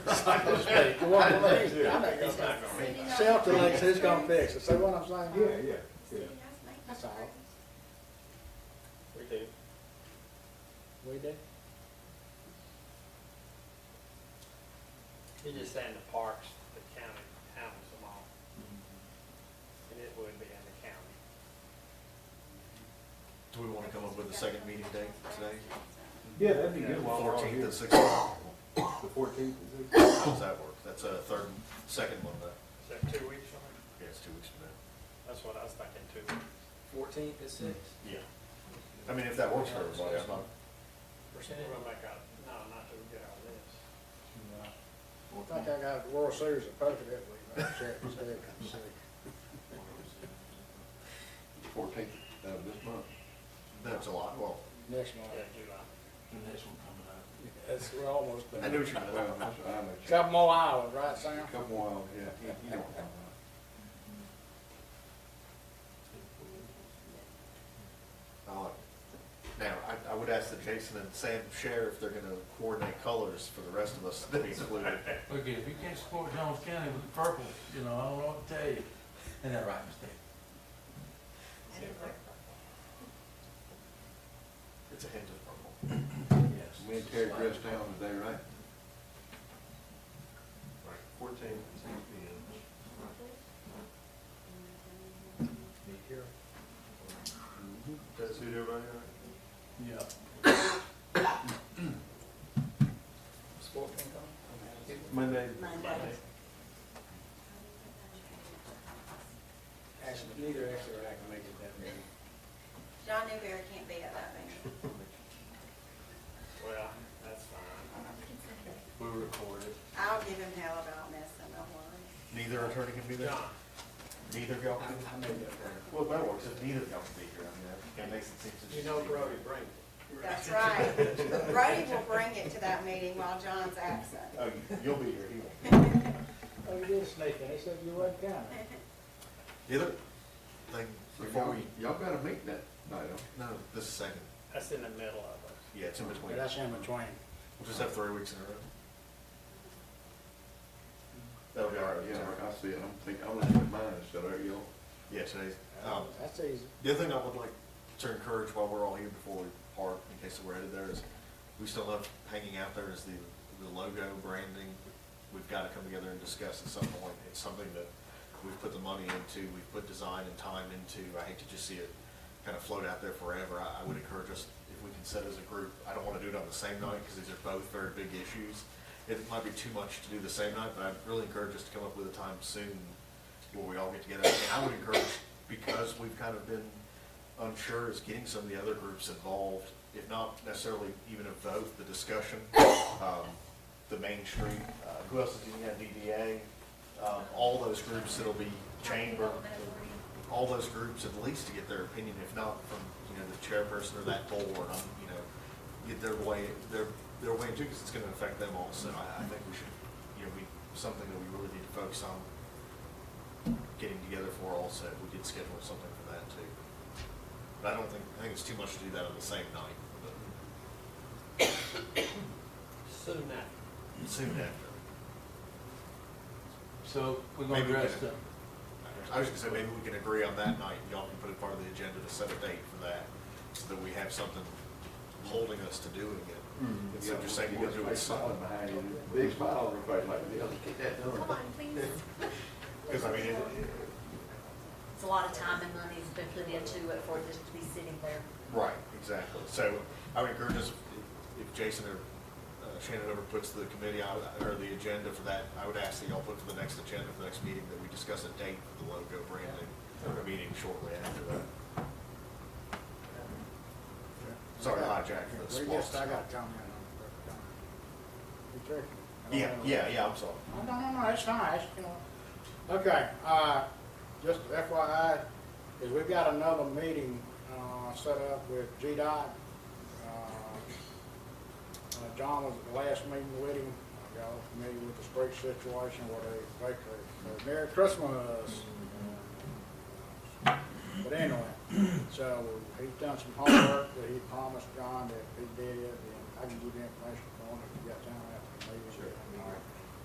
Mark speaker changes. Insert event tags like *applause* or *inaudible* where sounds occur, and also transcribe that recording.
Speaker 1: That's not gonna speak.
Speaker 2: Well, what I'm saying is, I
Speaker 1: That's
Speaker 2: think
Speaker 1: not gonna be.
Speaker 2: Self thinks it's gonna fix it, see what I'm saying?
Speaker 3: Yeah, yeah, yeah.
Speaker 2: That's all.
Speaker 1: We do.
Speaker 2: We do.
Speaker 1: You're just saying the parks, the county handles them all, and it would be in the county.
Speaker 4: Do we want to come up with a second meeting date today?
Speaker 3: Yeah, that'd be
Speaker 1: Yeah,
Speaker 3: good.
Speaker 1: well,
Speaker 3: while we're all
Speaker 4: Fourteenth
Speaker 3: here.
Speaker 4: and sixteenth?
Speaker 3: The fourteenth and sixteenth.
Speaker 4: How does that work? That's a third, second one, that,
Speaker 1: Is that two weeks from now?
Speaker 4: yeah, it's two weeks from now.
Speaker 1: That's what I was thinking, two weeks.
Speaker 5: Fourteenth is six
Speaker 4: Yeah. I mean, if that works for everybody, I'm not,
Speaker 1: We're
Speaker 5: percent.
Speaker 1: gonna make out, no, not till we get our list.
Speaker 2: I think I got the World Series of Poker that week, I'll check and see, and see.
Speaker 6: Fourteenth of this month.
Speaker 4: that's a lot, well,
Speaker 2: next month.
Speaker 1: Yeah, July.
Speaker 2: It's, we're almost
Speaker 4: I
Speaker 2: there.
Speaker 4: knew what you meant.
Speaker 6: Well, that's, I'm a.
Speaker 2: Couple more hours, right, Sam?
Speaker 6: Couple more, yeah, you- you don't have one.
Speaker 4: I like it. Now, I, I would ask that Jason and Sam share if they're gonna coordinate colors for the rest of us to be included.
Speaker 7: Look, if you can't support Jones County with purple, you know, I don't know what to tell you. Ain't that right, mistake?
Speaker 4: It's a hint of purple.
Speaker 7: Yes.
Speaker 6: Me and Terry dressed down today, right?
Speaker 4: Fourteen, six P M. Does suit everybody all right?
Speaker 7: Yeah.
Speaker 4: Monday.
Speaker 2: Actually, neither actually I can make it that meeting.
Speaker 8: John Newberry can't be at that meeting.
Speaker 1: Well, that's fine.
Speaker 7: We recorded.
Speaker 8: I'll give him hell about missing, don't worry.
Speaker 4: Neither attorney can be there?
Speaker 1: John,
Speaker 4: Neither of y'all
Speaker 2: I,
Speaker 4: can?
Speaker 2: I made that prayer.
Speaker 4: Well, that works, if neither of y'all can be here, I mean, that- that makes it seem.
Speaker 1: you know Brody Brink.
Speaker 8: That's right. Brody will bring it to that meeting while John's absent.
Speaker 4: Oh, you- you'll be here, he won't. be.
Speaker 2: Oh, you did sneak in, he said you wasn't coming.
Speaker 4: Either, like,
Speaker 6: So
Speaker 4: before
Speaker 6: y'all,
Speaker 4: we,
Speaker 6: y'all got a meeting that night, huh?
Speaker 4: no, this is second,
Speaker 1: That's in the middle of it.
Speaker 4: yeah, it's in
Speaker 2: But
Speaker 4: between,
Speaker 2: that's in between.
Speaker 4: we'll just have three weeks in a row. That'll be all right,
Speaker 6: Yeah,
Speaker 4: yeah,
Speaker 6: I see it, I'm thinking, I'm looking at mine, so there you
Speaker 4: yeah, today's, um,
Speaker 2: Oh, That's easy.
Speaker 4: the other thing I would like to encourage while we're all here before we park, in case we're headed there, is we still love hanging out there is the, the logo branding. We've gotta come together and discuss at some point. It's something that we've put the money into, we've put design and time into. I hate to just see it kind of float out there forever. I, I would encourage us, if we can set as a group, I don't wanna do it on the same night, cause these are both very big issues. It might be too much to do the same night, but I'd really encourage us to come up with a time soon where we all get together. And I would encourage, because we've kind of been unsure is getting some of the other groups involved, if not necessarily even a vote, the discussion, um, the Main Street, uh, who else is in the DDA? Um, all those groups that'll be chamber, all those groups at least to get their opinion, if not from, you know, the chairperson or that board, um, you know, get their way, their, their way too, because it's gonna affect them also. I, I think we should, you know, we, something that we really need to focus on getting together for also, we did schedule something for that too. But I don't think, I think it's too much to do that on the same night, but
Speaker 1: *coughs* Soon after.
Speaker 4: soon after.
Speaker 7: So we're gonna
Speaker 4: Maybe we
Speaker 7: dress
Speaker 4: can-
Speaker 7: up.
Speaker 4: I was gonna say, maybe we can agree on that night, y'all can put it part of the agenda to set a date for that, so that we have something holding us to doing it.
Speaker 6: go.
Speaker 4: Instead of just Mm-hmm. saying we're doing
Speaker 6: Big smile
Speaker 4: something.
Speaker 6: behind you, big smile on your face like, yeah, get that done.
Speaker 9: Come on, please.
Speaker 4: Because I mean, it- it-
Speaker 9: It's a lot of time and money that's been put into it for it just to be sitting there.
Speaker 4: Right, exactly. So I would encourage us, if- if Jason or uh, Shannon ever puts the committee out, or the agenda for that, I would ask that y'all put for the next agenda, for the next meeting, that we discuss a date for the logo branding, or a meeting shortly after that. Sorry, hijack
Speaker 2: Yeah,
Speaker 4: the
Speaker 2: We just, I
Speaker 4: spot.
Speaker 2: got to comment on it. uh, You tricked me. I don't
Speaker 4: Yeah,
Speaker 2: know.
Speaker 4: yeah, yeah, I'm sorry.
Speaker 2: Oh, No, no, no, it's fine, it's, you know. Okay, uh, just FYI, is we've got another meeting, uh, set up with GDOT. Uh, uh, John was at the last meeting with him, y'all are familiar with the street situation where they, they, could- Merry Christmas. But anyway, so he's done some homework that he promised John that if he did, and I can give you the information for him if you got time after the meeting. Sure.